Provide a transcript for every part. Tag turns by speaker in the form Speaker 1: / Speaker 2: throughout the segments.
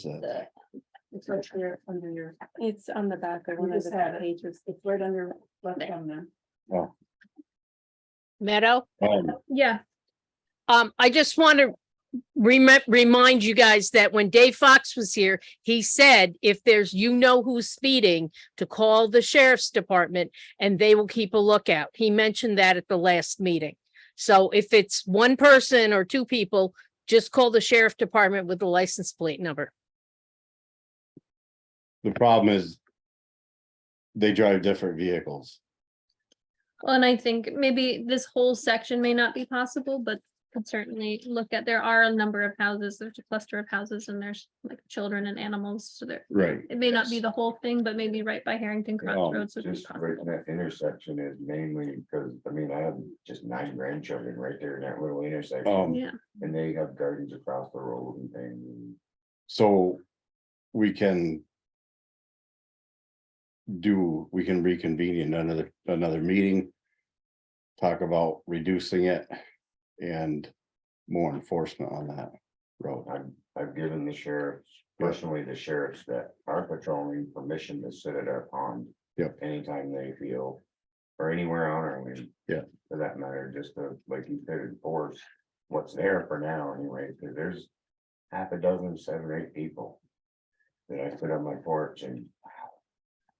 Speaker 1: There's a,
Speaker 2: the-
Speaker 3: It's right there under your,
Speaker 2: It's on the back of
Speaker 3: We
Speaker 2: one of
Speaker 3: just
Speaker 2: the
Speaker 3: had
Speaker 2: back
Speaker 3: it.
Speaker 2: pages.
Speaker 3: it's right under left
Speaker 2: There.
Speaker 3: thumbnail.
Speaker 4: Meadow.
Speaker 1: um,
Speaker 5: Yeah,
Speaker 4: Um, I just want to remind, remind you guys that when Dave Fox was here, he said if there's, you know who's speeding, to call the sheriff's department and they will keep a lookout. He mentioned that at the last meeting. So if it's one person or two people, just call the sheriff department with the license plate number.
Speaker 1: the problem is they drive different vehicles.
Speaker 5: well, and I think maybe this whole section may not be possible, but could certainly look at, there are a number of houses, there's a cluster of houses and there's like children and animals, so there.
Speaker 1: Right.
Speaker 5: It may not be the whole thing, but maybe right by Harrington
Speaker 6: No,
Speaker 5: Crossroads would be
Speaker 6: just right in
Speaker 5: possible.
Speaker 6: that intersection is mainly because, I mean, I have just nine grandchildren right there in that little intersection.
Speaker 1: Um,
Speaker 5: Yeah,
Speaker 6: And they have gardens across the road and things.
Speaker 1: So we can do, we can reconvene in another, another meeting. Talk about reducing it and more enforcement on that road.
Speaker 6: I've, I've given the sheriffs, personally, the sheriffs that are patrolling permission to sit at our pond.
Speaker 1: Yep.
Speaker 6: Anytime they feel, or anywhere on our land.
Speaker 1: Yeah.
Speaker 6: For that matter, just to, like you said, enforce what's there for now anyway, because there's half a dozen, seven, or eight people. That I sit on my porch and wow,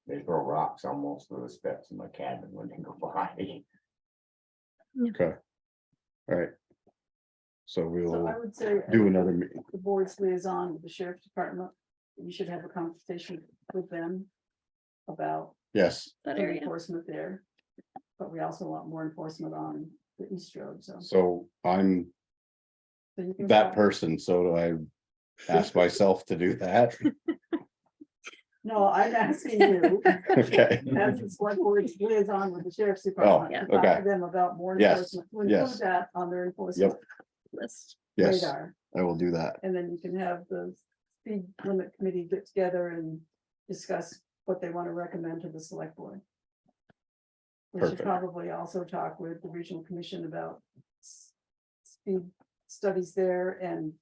Speaker 6: they throw rocks almost to the steps in my cabin when they go by.
Speaker 1: So
Speaker 3: So I
Speaker 1: we'll
Speaker 3: would say.
Speaker 1: do another meeting.
Speaker 3: The board's liaison with the sheriff's department, you should have a conversation with them. About
Speaker 1: Yes,
Speaker 5: that
Speaker 3: the
Speaker 5: area.
Speaker 3: enforcement there. But we also want more enforcement on the East Road, so.
Speaker 1: so I'm
Speaker 3: so you can
Speaker 1: that
Speaker 3: talk-
Speaker 1: person, so do I ask myself to do that?
Speaker 3: No, I'm asking you,
Speaker 1: Okay, Oh,
Speaker 3: as the select board's liaison with the sheriff's department.
Speaker 5: Yeah.
Speaker 3: to talk to
Speaker 1: okay.
Speaker 3: Them about more
Speaker 1: Yes,
Speaker 3: enforcement. We'll include
Speaker 1: yes.
Speaker 3: That on their enforcement
Speaker 5: List.
Speaker 1: yes,
Speaker 3: radar.
Speaker 1: I will do that.
Speaker 3: And then you can have the speed limit committee get together and discuss what they want to recommend to the select board. We should
Speaker 1: Perfect.
Speaker 3: probably also talk with the regional commission about s- speed studies there and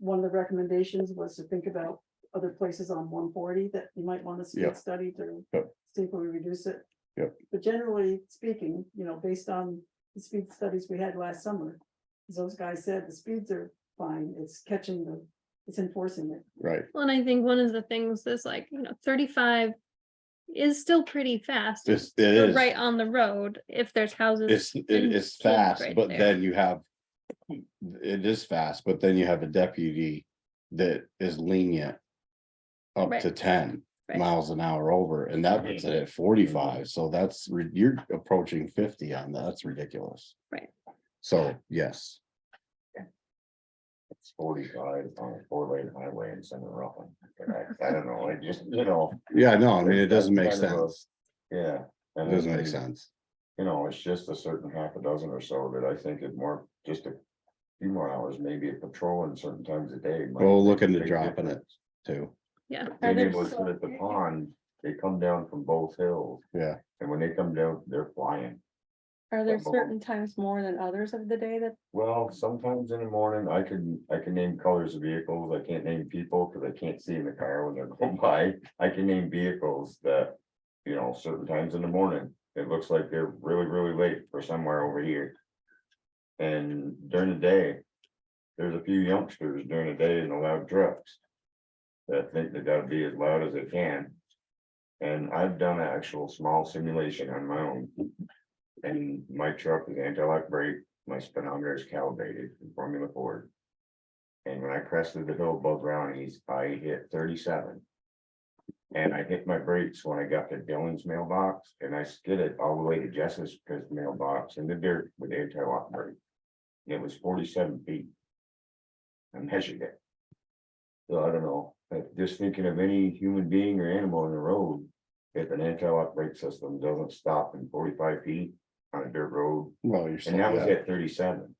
Speaker 3: one of the recommendations was to think about other places on one forty that you might want to
Speaker 1: Yeah.
Speaker 3: speed study to
Speaker 1: Yep.
Speaker 3: see if we reduce it.
Speaker 1: Yep.
Speaker 3: But generally speaking, you know, based on the speed studies we had last summer, as those guys said, the speeds are fine, it's catching the, it's enforcing it.
Speaker 1: Right,
Speaker 5: Well, and I think one of the things is like, you know, thirty-five is still pretty fast.
Speaker 1: it's, it
Speaker 5: but
Speaker 1: is,
Speaker 5: Right on the road, if there's houses.
Speaker 1: it's, it
Speaker 5: and
Speaker 1: is
Speaker 5: kids
Speaker 1: fast,
Speaker 5: right
Speaker 1: but
Speaker 5: there.
Speaker 1: then you have. It is fast, but then you have a deputy that is lenient. Up
Speaker 5: Right.
Speaker 1: to ten
Speaker 5: Right.
Speaker 1: miles an hour over, and that puts it at forty-five, so that's, re- you're approaching fifty on that, that's ridiculous.
Speaker 5: Right.
Speaker 1: So, yes,
Speaker 6: It's forty-five on a four-lane highway in Center Rockland. I I don't know, I just, you know,
Speaker 1: yeah, no, I mean, it
Speaker 6: That's
Speaker 1: doesn't make
Speaker 6: kind of a-
Speaker 1: sense,
Speaker 6: yeah.
Speaker 1: it
Speaker 6: and
Speaker 1: doesn't
Speaker 6: I
Speaker 1: make
Speaker 6: think,
Speaker 1: sense,
Speaker 6: You know, it's just a certain half a dozen or so that I think it more, just a few more hours, maybe a patrol and certain times a day. might
Speaker 1: Well,
Speaker 6: make a
Speaker 1: look into
Speaker 6: big
Speaker 1: dropping it.
Speaker 6: difference.
Speaker 1: too,
Speaker 5: Yeah,
Speaker 6: Being
Speaker 3: Are there
Speaker 6: able to sit
Speaker 3: so-
Speaker 6: at the pond, they come down from both hills,
Speaker 1: yeah,
Speaker 6: and when they come down, they're flying.
Speaker 2: Are there
Speaker 6: Couple.
Speaker 2: certain times more than others of the day that
Speaker 6: Well, sometimes in the morning, I can, I can name colors of vehicles, I can't name people, because I can't see in the car when they're going by, I can name vehicles that. You know, certain times in the morning, it looks like they're really, really late for somewhere over here. And during the day, there's a few youngsters during the day in the loud trucks. That think they gotta be as loud as they can. And I've done an actual small simulation on my own. And my truck is anti-lock brake, my speedometer is calibrated in Formula Ford. And when I crested the hill above Brownies, I hit thirty-seven. And I hit my brakes when I got to Dylan's mailbox and I skidded all the way to Jess's mailbox in the dirt with anti-lock brake. And It was forty-seven feet. I measured it. So I don't know, but just thinking of any human being or animal on the road, if an anti-lock brake system doesn't stop in forty-five feet on a dirt road,
Speaker 1: well, you're. still-
Speaker 6: and that was
Speaker 1: yeah.
Speaker 6: at thirty-seven.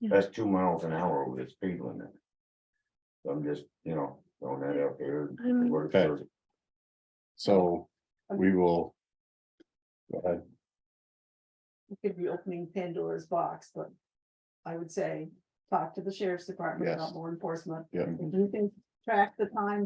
Speaker 5: Yeah.
Speaker 6: That's two miles an hour over the speed limit. So I'm just, you know, throwing that out there.
Speaker 5: I'm-
Speaker 6: What if
Speaker 1: Okay.
Speaker 6: there's-
Speaker 1: So, we will. Go ahead.
Speaker 3: It could be opening Pandora's box, but I would say, talk to the sheriff's department about
Speaker 1: Yes.
Speaker 3: more enforcement.
Speaker 1: Yeah.
Speaker 3: If you can track the time